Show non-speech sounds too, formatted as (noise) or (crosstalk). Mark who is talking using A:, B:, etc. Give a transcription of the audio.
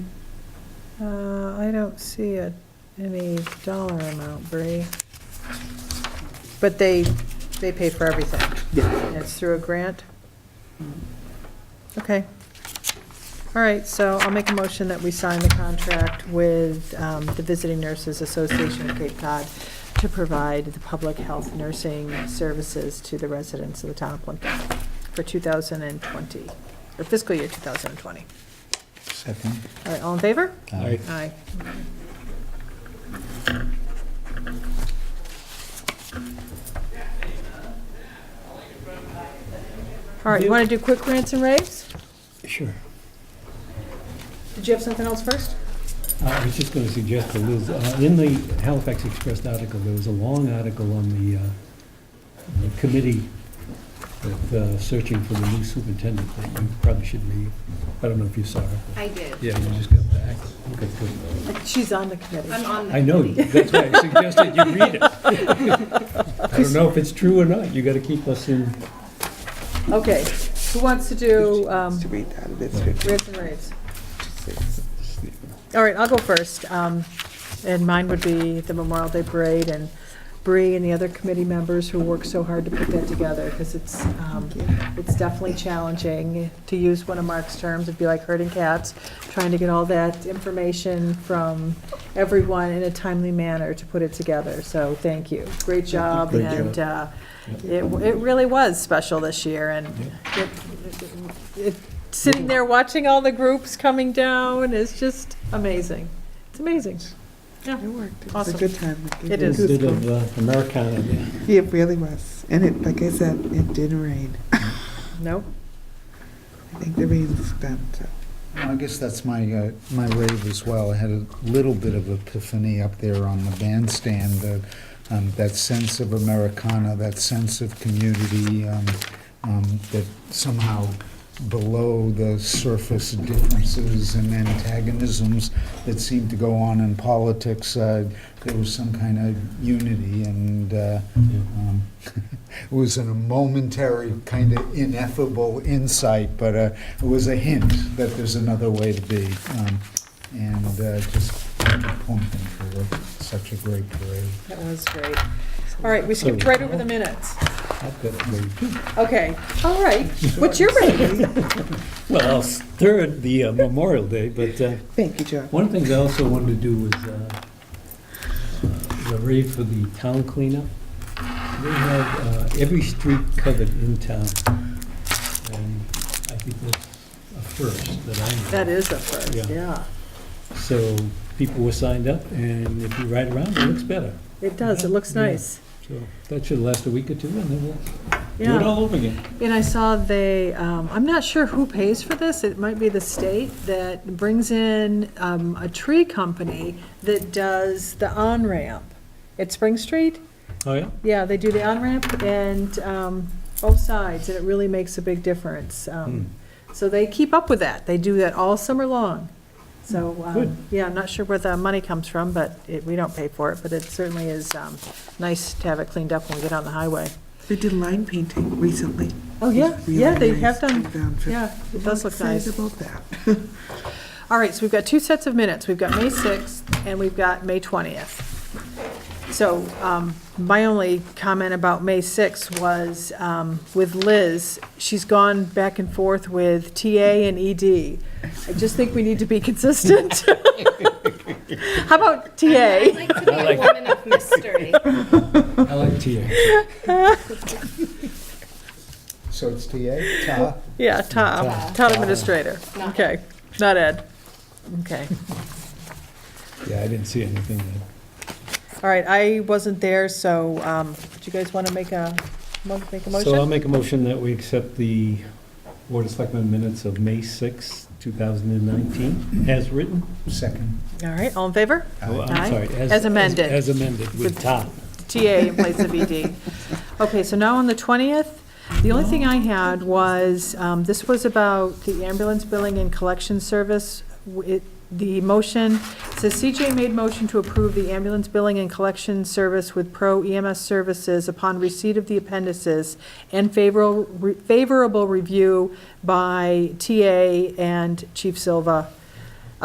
A: Uh, I don't see a, any dollar amount, Bree. But they, they pay for everything. And It's through a grant? Okay. All right, so I'll make a motion that we sign the contract with um, the Visiting Nurses Association of Cape Cod to provide the public health nursing services to the residents of the town of Plimpton for 2020, or fiscal year 2020.
B: Second.
A: All right, all in favor?
C: Uh,
B: Aye.
A: Aye. All right, you want to do quick rants and raves?
B: Sure.
A: Did you have something else first?
D: Uh, I was just going to suggest to Liz, uh, in the Halifax Express article, there was a long article on the, uh, on the committee with uh, searching for the new superintendent that you probably should read. I don't know if you saw it.
E: I did.
D: Yeah, you just got back. Okay, good.
A: She's on the committee.
E: I'm on the.
D: I know,
E: committee.
D: that's why I suggested you read it. I don't know if it's true or not. You got to keep us in,
A: Okay, who wants to do um,
B: To read out of this fifty
A: rants and raves?
B: six.
A: All right, I'll go first. Um, And mine would be the Memorial Day Parade and Bree and the other committee members who worked so hard to put that together because it's, um, it's definitely challenging, to use one of Mark's terms, it'd be like herding cats, trying to get all that information from everyone in a timely manner to put it together. So thank you. Great job.
D: Great
A: And uh, it, it really was special this year and it- it- it- sitting there watching all the groups coming down is just amazing. It's amazing. Yeah.
B: It worked. It was
A: Awesome.
B: a good time. It
A: It
D: a
B: was
A: is.
B: good
D: bit
B: fun.
D: of uh, Americana there.
B: It really was. And it, like I said, it did rain.
A: No?
B: I think the rain's done, so.
C: I guess that's my, uh, my rave as well. I had a little bit of epiphany up there on the bandstand, uh, um, that sense of Americana, that sense of community, um, um, that somehow below the surface differences and antagonisms that seem to go on in politics, uh, there was some kind of unity, and uh, um, (laughs) it was in a momentary, kind of ineffable insight, but uh, it was a hint that there's another way to be. Um, And uh, just thank them for such a great parade.
A: That was great. All right, we skipped right over the minutes.
D: I've got to read.
A: Okay, all (laughs) right. What's your rating?
D: Well, I'll third the uh, Memorial Day, but uh,
B: Thank you, Joe.
D: One of the things I also wanted to do was uh, the rave for the town cleanup. They have uh, every street covered in town, and I think that's a first that I know.
A: That is a first,
D: Yeah.
A: yeah.
D: So people were signed up, and if you ride around, it looks better.
A: It does, it looks
D: Yeah.
A: nice.
D: So that should last a week or two, and then we'll do it
A: Yeah,
D: all over again.
A: and I saw they, um, I'm not sure who pays for this, it might be the state that brings in, um, a tree company that does the on-ramp at Spring Street.
D: Oh, (laughs) yeah?
A: Yeah, they do the on-ramp and, um, both sides, and it really makes a big difference. Um, So they keep up with that. They do that all summer long. So,
D: Good.
A: um, yeah, I'm not sure where the money comes from, but it, we don't pay for it, but it certainly is, um, nice to have it cleaned up when we get on the highway.
B: They did line painting recently.
A: Oh, yeah,
B: It's really
A: yeah, they
B: nice.
A: have
B: I
A: done,
B: found it.
A: yeah, it does look
B: Excited
A: nice.
B: about that.
A: All right, so we've got two sets of minutes. We've got May 6th and we've got May 20th. So um, my only comment about May 6th was um, with Liz, she's gone back and forth with TA and ED. I just think we need to be consistent. (laughs) How about
E: I'd
A: TA?
E: like to be a woman of mystery.
D: I like TA.
C: So it's TA, Ta,
A: Yeah, Tom, town administrator.
E: Not-
A: Okay, not Ed. Okay.
D: Yeah, I didn't see anything there.
A: All right, I wasn't there, so um, do you guys want to make a, mo- make a
D: So um, I'll
A: motion?
D: make a motion that we accept the Board of Selectmen minutes of May 6, 2019, as written.
C: second.
A: All right, all in favor?
D: Oh,
A: Aye.
D: I'm sorry.
A: As amended.
D: As amended, with top.
A: TA in place of ED. Okay, so now on the 20th, the only thing I had was, um, this was about the ambulance billing and collection service. W- it- The motion, it says CJ made motion to approve the ambulance billing and collection service with Pro EMS Services upon receipt of the appendices and favorable, favorable review by TA and Chief Silva